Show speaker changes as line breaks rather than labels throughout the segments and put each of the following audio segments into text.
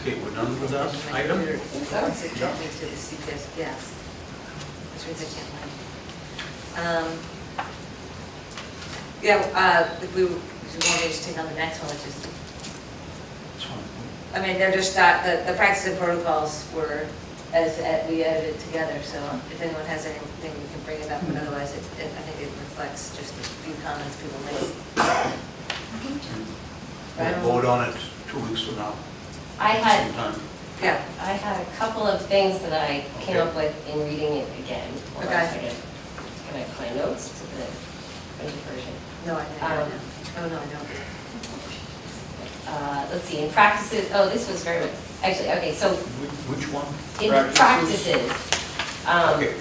Okay, we're done with that item?
So it's subjected to the CPS, yes. That's where they can't land. Um, Yeah, uh, if we, if you want me to just take on the next one, which is,
That's fine.
I mean, they're just, not- the, the practice and protocols were, as, uh, we edited together, so if anyone has anything, we can bring it up, but otherwise, it, it- I think it reflects just a few comments people made. Right.
We'll vote on it two weeks from now.
I had,
Sometime.
Yeah,
I had a couple of things that I came up with in reading it again. Hold on a
Okay.
second. Can I find notes to the printed version?
no, I know, I know. Oh, no, I know.
Uh, Let's see, in practices, oh, this was very, actually, okay, so
Whi- Which one?
in
Practices.
practices, um,
Okay,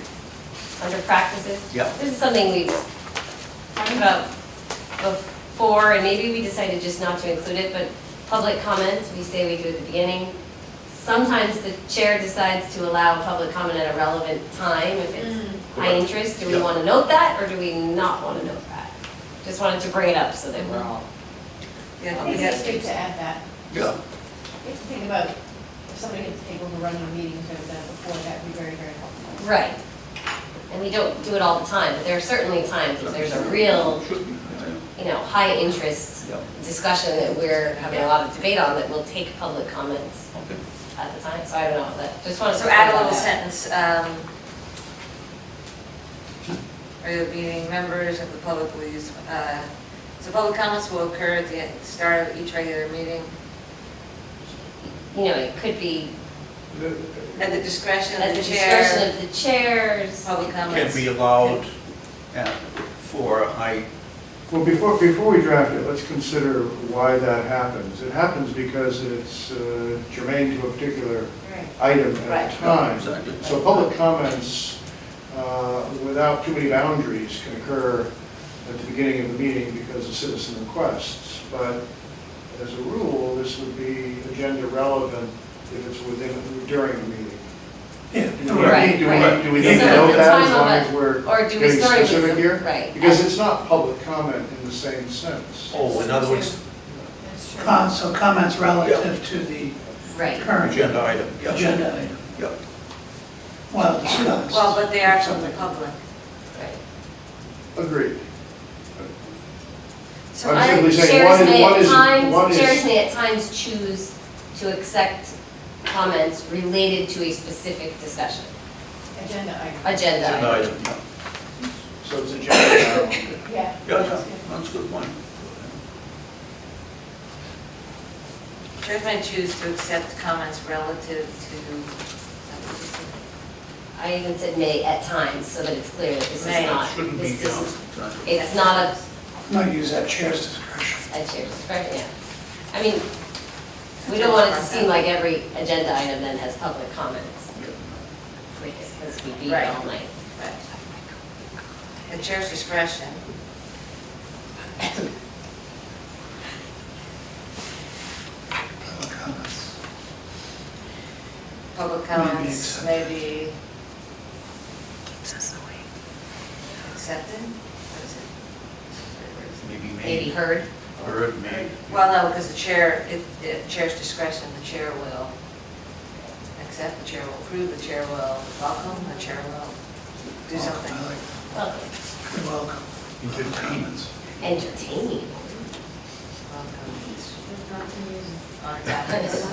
under practices.
Yeah.
This is something we talked about before, and maybe we decided just not to include it, but public comments, we say we do at the beginning. Sometimes the chair decides to allow public comment at a relevant time if it's high
Correct.
interest. Do we
Yeah.
want to note that, or do we not want to note that? Just wanted to bring it up so that we're all,
Yeah,
I
we
think it's
got-
good to add that.
yeah,
If you think about, if somebody gets able to run the meetings or that before, that'd be very, very helpful.
right. And we don't do it all the time, but there are certainly times if there's a real,
should be, yeah,
you know, high interest
yeah,
discussion that we're having a lot of debate on that will take public comments
okay.
at the time, so I don't know, but just wanted to.
Oh, So add a little
point that
sentence, um, are you meeting members of the public will use, uh, so public comments will occur at the start of each regular meeting
out. You know, it could be
at the discretion
at
of
the
the chair. Oh.
discretion of the chairs.
Public
Can
comments.
be allowed uh, for a high
Well, before, before we draft it, let's consider why that happens. It happens because it's uh, germane to a particular
Right.
item
Right.
at a time.
Exactly.
So public comments, uh, without too many boundaries, can occur at the beginning of the meeting because of citizen requests. But as a rule, this would be agenda relevant if it's within, during the meeting.
Yeah.
Do we need, do we need, do we need to
So at
know
the
that as
time of
long
it,
as we're
Or do we
getting
start with?
specific here?
Right.
Because it's not public comment in the same sense.
Oh, in other words,
That's true.
Com- Uh, So comments relative to the
Right,
current
agenda item, yeah.
agenda item,
Yeah,
well discussed.
Well, but they are from the
Something.
public.
right.
Agreed.
So
I'm
I,
simply saying,
Chairs
what is-
may
what
at
is- what
times,
is-
chairs may at times choose to accept comments related to a specific discussion,
Agenda item.
agenda.
agenda
item.
item, yeah.
So it's agenda now.
Yeah.
Yeah,
that's good.
yeah, that's a good point.
chairs may choose to accept comments relative to,
I even said may at times, so that it's clear that this is
May.
not,
Shouldn't be,
Uh, this
yeah,
is,
exactly.
it's not a
Not use that chair's discretion.
I chair discretion, yeah. I mean, we don't want it to seem like every agenda item then has public comments, because we beat it all night.
Right. the chair's discretion.
Public comments.
Public comments
Maybe accept.
may be accepted? What is it? Where is
Maybe
Maybe
made,
heard,
or it may,
it? Well, no, because the chair, it- it chair's discretion, the chair will accept, the chair will approve, the chair will welcome, the chair will do something.
Welcome, I like
welcome,
that. You're welcome.
entertainment.
entertaining.
Welcome
There's not to use.
On topics,
Um,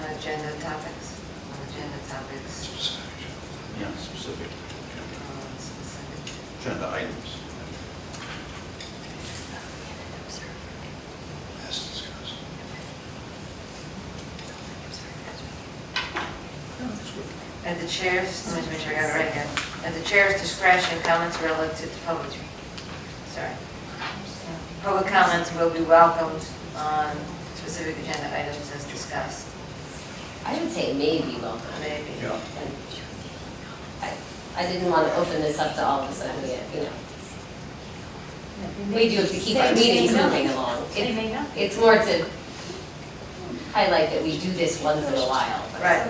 on agenda topics, on agenda topics.
Specific.
Yeah, specific
on specific-
agenda items.
As discussed.
Yeah, that's good.
At the chair's, let me just make sure I got it right here. At the chair's discretion, comments relative to public, sorry. Public comments will be welcomed on specific agenda items as discussed,
I would say maybe welcome.
maybe.
Yeah.
And I- I didn't want to open this up to all of a sudden, we, you know, we do have to keep our
They may
meetings
know.
moving along.
They
It-
may not.
It's more to highlight that we do this once in a while.
Right.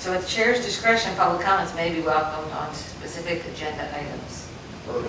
So at the chair's discretion, public comments may be welcomed on specific agenda items.
Or